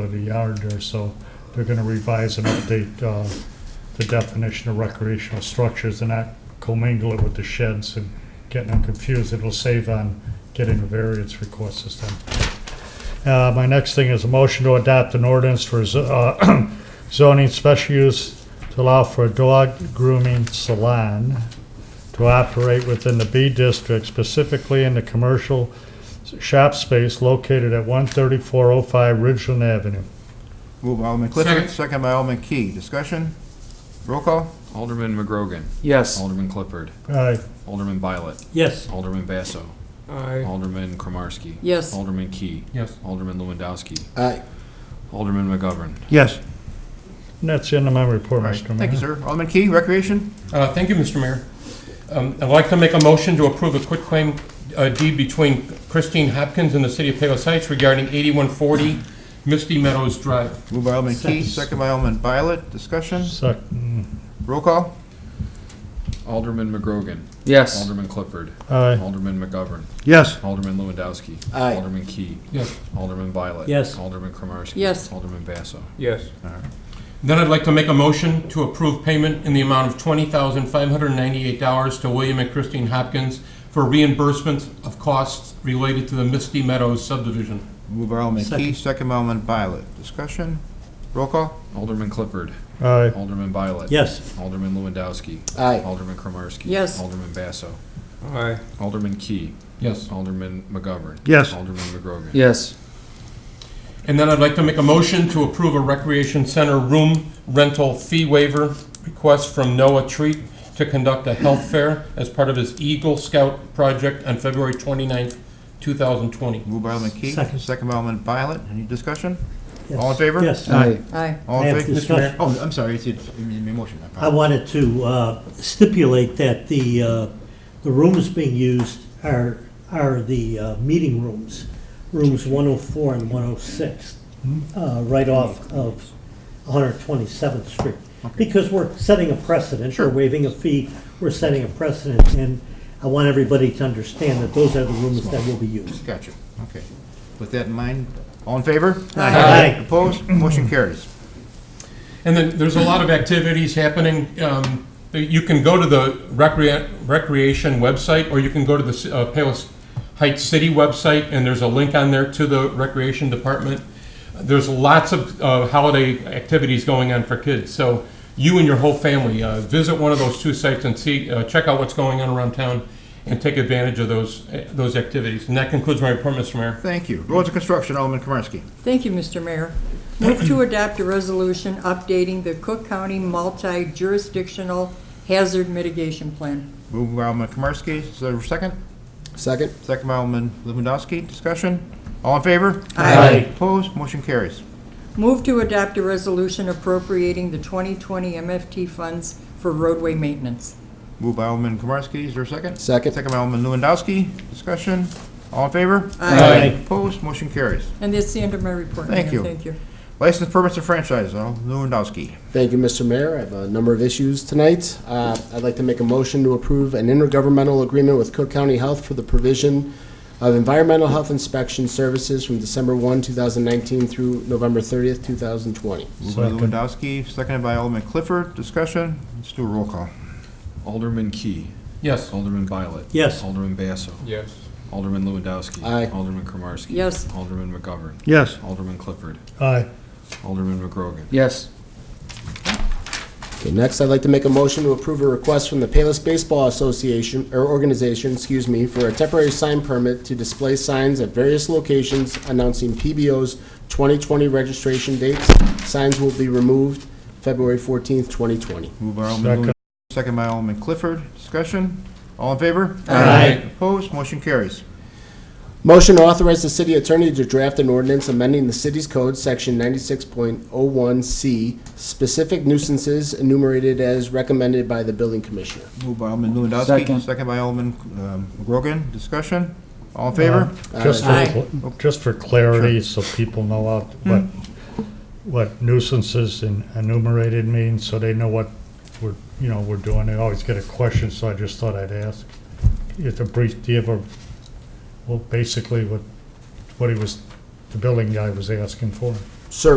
of the yard there, so they're gonna revise and update, uh, the definition of recreational structures and not commingle it with the sheds and getting them confused. It'll save on getting a variance request this time. Uh, my next thing is a motion to adopt an ordinance for, z- uh, zoning special use to allow for a dog grooming salon to operate within the B district, specifically in the commercial shop space located at 13405 Ridgeland Avenue. Move by Alderman Clifford, Second. second by Alderman Key. Discussion? Roll call? Mm-hmm. Alderman McGrogan. Yes. Alderman Clifford. Aye. Alderman Violet. Yes. Alderman Basso. Aye. Alderman Kromarski. Yes. Alderman Key. Yes. Alderman Lewandowski. Aye. Alderman McGovern. Yes. And that's the end of my report, Mr. Mayor. Thank you, sir. Alderman Key, Recreation? Uh, Thank you, Mr. Mayor. Um, I'd like to make a motion to approve a quitclaim uh, deed between Christine Hopkins and the City of Palo Heights regarding 8140 Misty Meadows Drive. Move by Alderman Key, second by Alderman Violet. Discussion? Sec- Roll call? Alderman McGrogan. Yes. Alderman Clifford. Aye. Alderman McGovern. Yes. Alderman Lewandowski. Aye. Alderman Key. Yes. Alderman Violet. Yes. Alderman Kromarski. Yes. Alderman Basso. Yes. Then I'd like to make a motion to approve payment in the amount of $20,598 to William and Christine Hopkins for reimbursement of costs related to the Misty Meadows subdivision. Move by Alderman Key, second by Alderman Violet. Discussion? Roll call? Alderman Clifford. Aye. Alderman Violet. Yes. Alderman Lewandowski. Aye. Alderman Kromarski. Yes. Alderman Basso. Aye. Alderman Key. Yes. Alderman McGovern. Yes. Alderman McGrogan. Yes. And then I'd like to make a motion to approve a recreation center room rental fee waiver request from Noah Treat to conduct a health fair as part of his Eagle Scout project on February 29th, 2020. Move by Alderman Key, Second. second by Alderman Violet. Any discussion? Yes. All in favor? Yes. Aye. Aye. All I in have favor? discussion. Oh, I'm sorry, it's, it's, I mean, motion. I wanted to uh, stipulate that the, uh, the rooms being used are, are the uh, meeting rooms, rooms 104 and 106, Hmm. uh, right off of 127th Street. Because we're setting a precedent, we're waiving a fee, we're setting a precedent, and I want everybody to understand that those are the rooms that will be used. Gotcha. Okay. With that in mind, all in favor? Aye. Aye. Opposed? Motion carries. And then there's a lot of activities happening. Um, You can go to the recrea- recreation website, or you can go to the ci- uh, Palos Heights City website, and there's a link on there to the recreation department. There's lots of uh, holiday activities going on for kids, so you and your whole family, uh, visit one of those two sites and see, uh, check out what's going on around town, and take advantage of those, uh, those activities. And that concludes my report, Mr. Mayor. Thank you. Roads and Construction, Alderman Kromarski. Thank you, Mr. Mayor. Move to adopt a resolution updating the Cook County multi-jurisdictional hazard mitigation plan. Moved by Alderman Kromarski, is there a second? Second. Second by Alderman Lewandowski, discussion? All in favor? Aye. Opposed, motion carries. Move to adopt a resolution appropriating the 2020 MFT funds for roadway maintenance. Moved by Alderman Kromarski, is there a second? Second. Second by Alderman Lewandowski, discussion? All in favor? Aye. Opposed, motion carries. And that's the end of my report. Thank Mayor. you. Thank you. License permits and franchise, Alderman Lewandowski. Thank you, Mr. Mayor. I have a number of issues tonight. Uh, I'd like to make a motion to approve an intergovernmental agreement with Cook County Health for the provision of environmental health inspection services from December 1, 2019 through November 30th, 2020. Moved by Second. Lewandowski, seconded by Alderman Clifford, discussion? Let's do a roll call. Alderman Key. Yes. Alderman Violet. Yes. Alderman Basso. Yes. Alderman Lewandowski. Aye. Alderman Kromarski. Yes. Alderman McGovern. Yes. Alderman Clifford. Aye. Alderman McGrogan. Yes. Okay, next, I'd like to make a motion to approve a request from the Payless Baseball Association, or organization, excuse me, for a temporary sign permit to display signs at various locations announcing PBO's 2020 registration dates. Signs will be removed February 14th, 2020. Moved by Alderman Second. Uh, Lewandowski, seconded by Alderman Clifford, discussion? All in favor? Aye. Opposed, motion carries. Motion to authorize the city attorney to draft an ordinance amending the city's code, section 96.01C, specific nuisances enumerated as recommended by the building commissioner. Moved by Alderman Lewandowski, second by Alderman um, McGrogan, discussion? All in favor? Uh, Just Aye. for, just for clarity, so people know what, what- what nuisances and enumerated means, so they know what we're, you know, we're doing. They always get a question, so I just thought I'd ask. It's a brief, do you ever, well, basically what, what he was, the building guy was asking for. Sir,